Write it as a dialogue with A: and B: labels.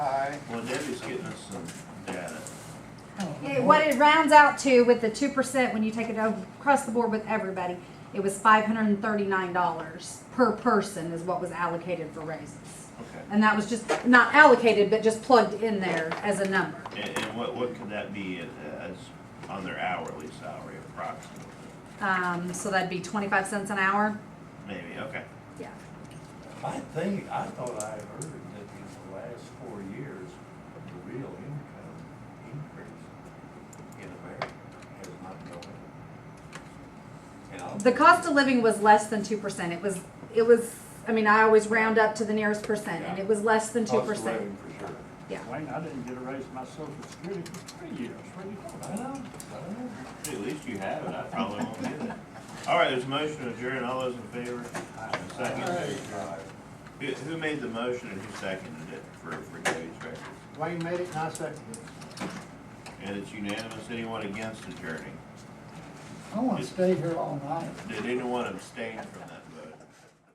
A: Well, Debbie's getting us some data.
B: Yeah, What it rounds out to with the two percent, when you take it over- across the board with everybody, it was five hundred and thirty-nine dollars per person is what was allocated for raises.
A: Okay.
B: And that was just, not allocated, but just plugged in there as a number.
A: And, and what, what could that be as, on their hourly salary approximately?
B: Um, so that'd be twenty-five cents an hour.
A: Maybe, okay.
B: Yeah.
C: I think, I thought I heard that in the last four years, the real income increase in America has not gone up. And I'll-
B: The cost of living was less than two percent. It was, it was, I mean, I always round up to the nearest percent and it was less than two
C: Cost of
B: percent.
C: living for sure.
D: Wayne, I didn't get a raise in my social security for three years, what are you talking
C: I
D: about?
C: know, I know.
A: At least you have it, I probably won't get it. All right, there's a motion to adjourn, all those in favor? And Second, who, who made the motion and who seconded it for, for Debbie's record?
D: Wayne made it, and I seconded it.
A: And it's unanimous, anyone against adjourning?
E: I wanna stay here all night.
A: Did anyone abstain from that vote?